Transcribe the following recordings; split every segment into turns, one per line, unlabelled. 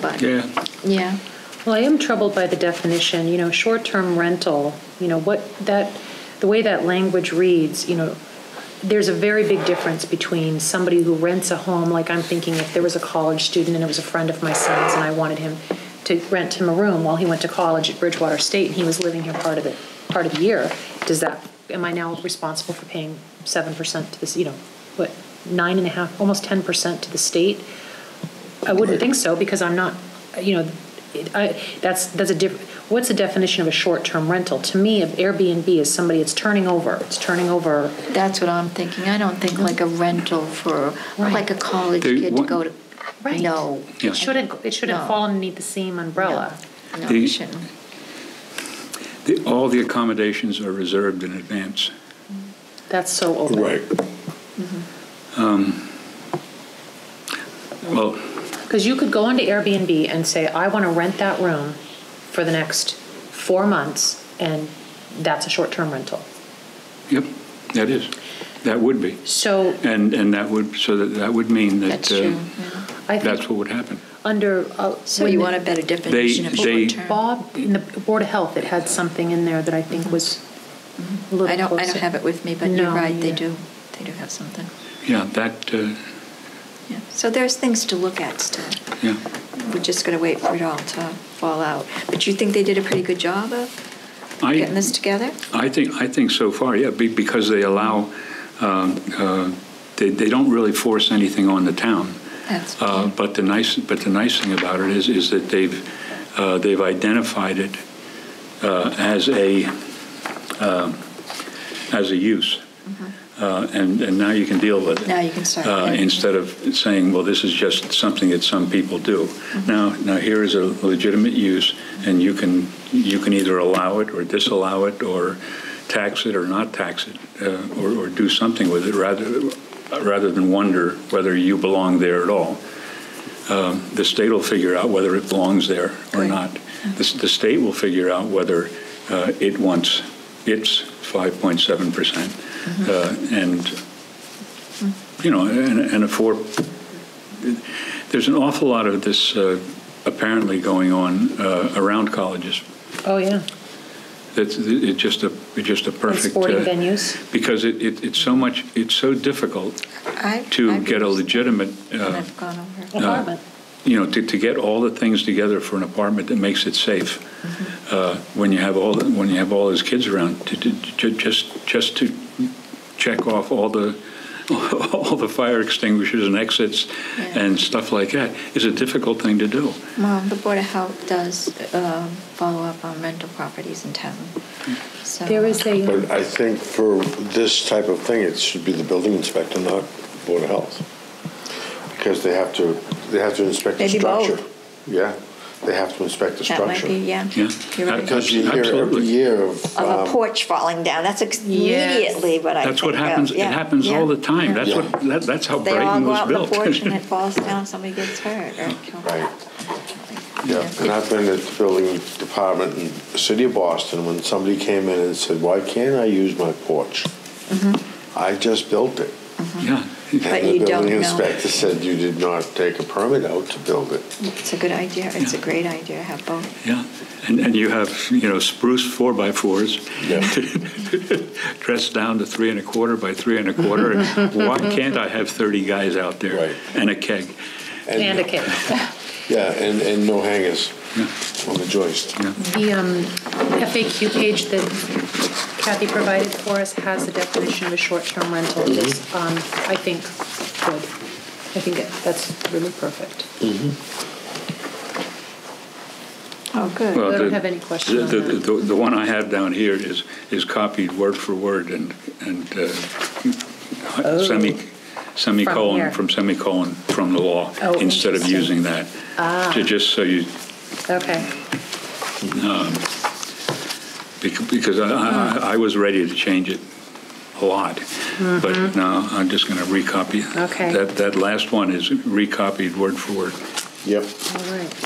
but
Yeah,
yeah.
Well, I am troubled by the definition, you know, short-term rental, you know, what that, the way that language reads, you know, there's a very big difference between somebody who rents a home, like I'm thinking if there was a college student and it was a friend of my son's and I wanted him to rent him a room while he went to college at Bridgewater State and he was living here part of it, part of the year, does that, am I now responsible for paying seven percent to this, you know, what, nine and a half, almost ten percent to the state? I wouldn't think so, because I'm not, you know, it- I, that's, that's a diff, what's the definition of a short-term rental? To me, an Airbnb is somebody, it's turning over, it's turning over,
That's what I'm thinking. I don't think like a rental for,
Right.
like a college
They
kid to
want-
go to.
Right.
No.
Yeah.
it shouldn't, it shouldn't
No.
fall underneath the same umbrella.
No,
They-
it shouldn't.
The- all the accommodations are reserved in advance.
That's so open.
Right.
Um, Well,
Because you could go onto Airbnb and say, I want to rent that room for the next four months, and that's a short-term rental.
yep, that is, that would be.
So
And, and that would, so that, that would mean that.
That's
uh,
true. yeah.
I
That's
think
what would happen.
under, uh,
So you want a better definition of
they-
short-term?
Bob, in the Board of Health, it had something in there that I think was a little
I don't, I don't
closer.
have it with me, but you're
No,
right, they
yeah.
do, they do have something.
Yeah, that, uh,
Yeah. So there's things to look at still.
yeah.
We're just going to wait for it all to fall out. But you think they did a pretty good job of
I-
getting this together?
I think, I think so far, yeah, be- because they allow, um, uh, they they don't really force anything on the town.
That's
Uh, But the nice, but the nice thing about it is, is that they've, uh, they've identified it uh, as a, um, as a use. Uh, And, and now you can deal with it.
Mm-hmm. Now you can start
Uh,
with it.
Instead of saying, well, this is just something that some people do.
Mm-hmm.
Now, now here is a legitimate use, and you can, you can either allow it or disallow it, or tax it or not tax it, uh, or, or do something with it, rather, rather than wonder whether you belong there at all the state will figure out whether it belongs there or
Right.
not. The, s- the state will figure out whether uh, it wants its 5.7 percent, uh,
Mm-hmm.
and you know, and, and a four. There's an awful lot of this uh, apparently going on uh, around colleges.
Oh, yeah.
That's it's just a it's just a
And
perfect
sporting
uh,
venues.
because it, it, it's so much it's so difficult
I-
to
I've
get a
used-
legitimate.
and
Uh,
I've gone over. it.
Apartment.
you know, to, to get all the things together for an apartment that makes it safe,
Mm-hmm.
uh, when you have all, the- when you have all those kids around, to, to, ju- just, just to check off all the, all the fire extinguishers and exits
Yeah.
and stuff like that is a difficult thing to do.
Well, the Board of Health does um, follow up on rental properties in town, so.
There is a,
But I think for this type of thing, it should be the building inspector, not Board of Health. Because they have to, they have to inspect the
Maybe both.
structure. Yeah, they have to inspect the
That might be,
structure.
yeah.
Yeah.
You're right.
Because-
Because you hear every
Absolutely.
year of,
of a
um,
porch falling down. That's ex-
Yes.
immediately what I think
That's what
of.
happens, it
Yeah,
happens
yeah.
all the time. That's
Yeah.
what, that- that's how
They all
Brighton
go
was
out on the
built.
porch and it falls down, somebody gets hurt or killed.
right, yeah. And I've been at the building department in the city of Boston when somebody came in and said, why can't I use my porch? I just built it.
Yeah,
Mm-hmm. But
And the
you don't
building
know.
inspector said you did not take a permit out to build it.
It's a good idea, it's a great idea to have both.
yeah. And, and you have, you know, spruce four by fours.
Yeah.
dressed down to three and a quarter by three and a quarter. and Why can't I have 30 guys out there
Right.
and a keg?
and a kid.
Yeah, and, and no hangers on the joist.
The um, FAQ page that Kathy provided for us has the definition of a short-term rental.
Mm-hmm.
It is, um, I think, good. I think it- that's really perfect.
Uh,
Oh, good.
Well,
I don't
the-
have any question on
the-
that.
The, the one I have down here is, is copied word for word and, and uh, semi,
Oh. here.
semicolon, from semicolon, from the law,
Oh,
instead of
interesting. Ah.
using that. Ju- Just so you,
Okay.
bec- because I- I, I- I was ready to change it a lot, but no, I'm just going to recopy.
Okay.
That, that last one is recopied word for word.
Yep.
All right.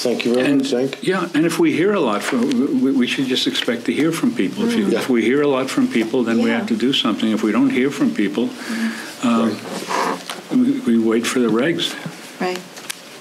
Thank you very
And,
much, Zink.
yeah, and if we hear a lot from, we, we should just expect to hear from people. If, you,
Yeah.
if we hear a lot from people, then we
Yeah.
have to do something. If we don't hear from people, um, we, we wait for the regs.
Right,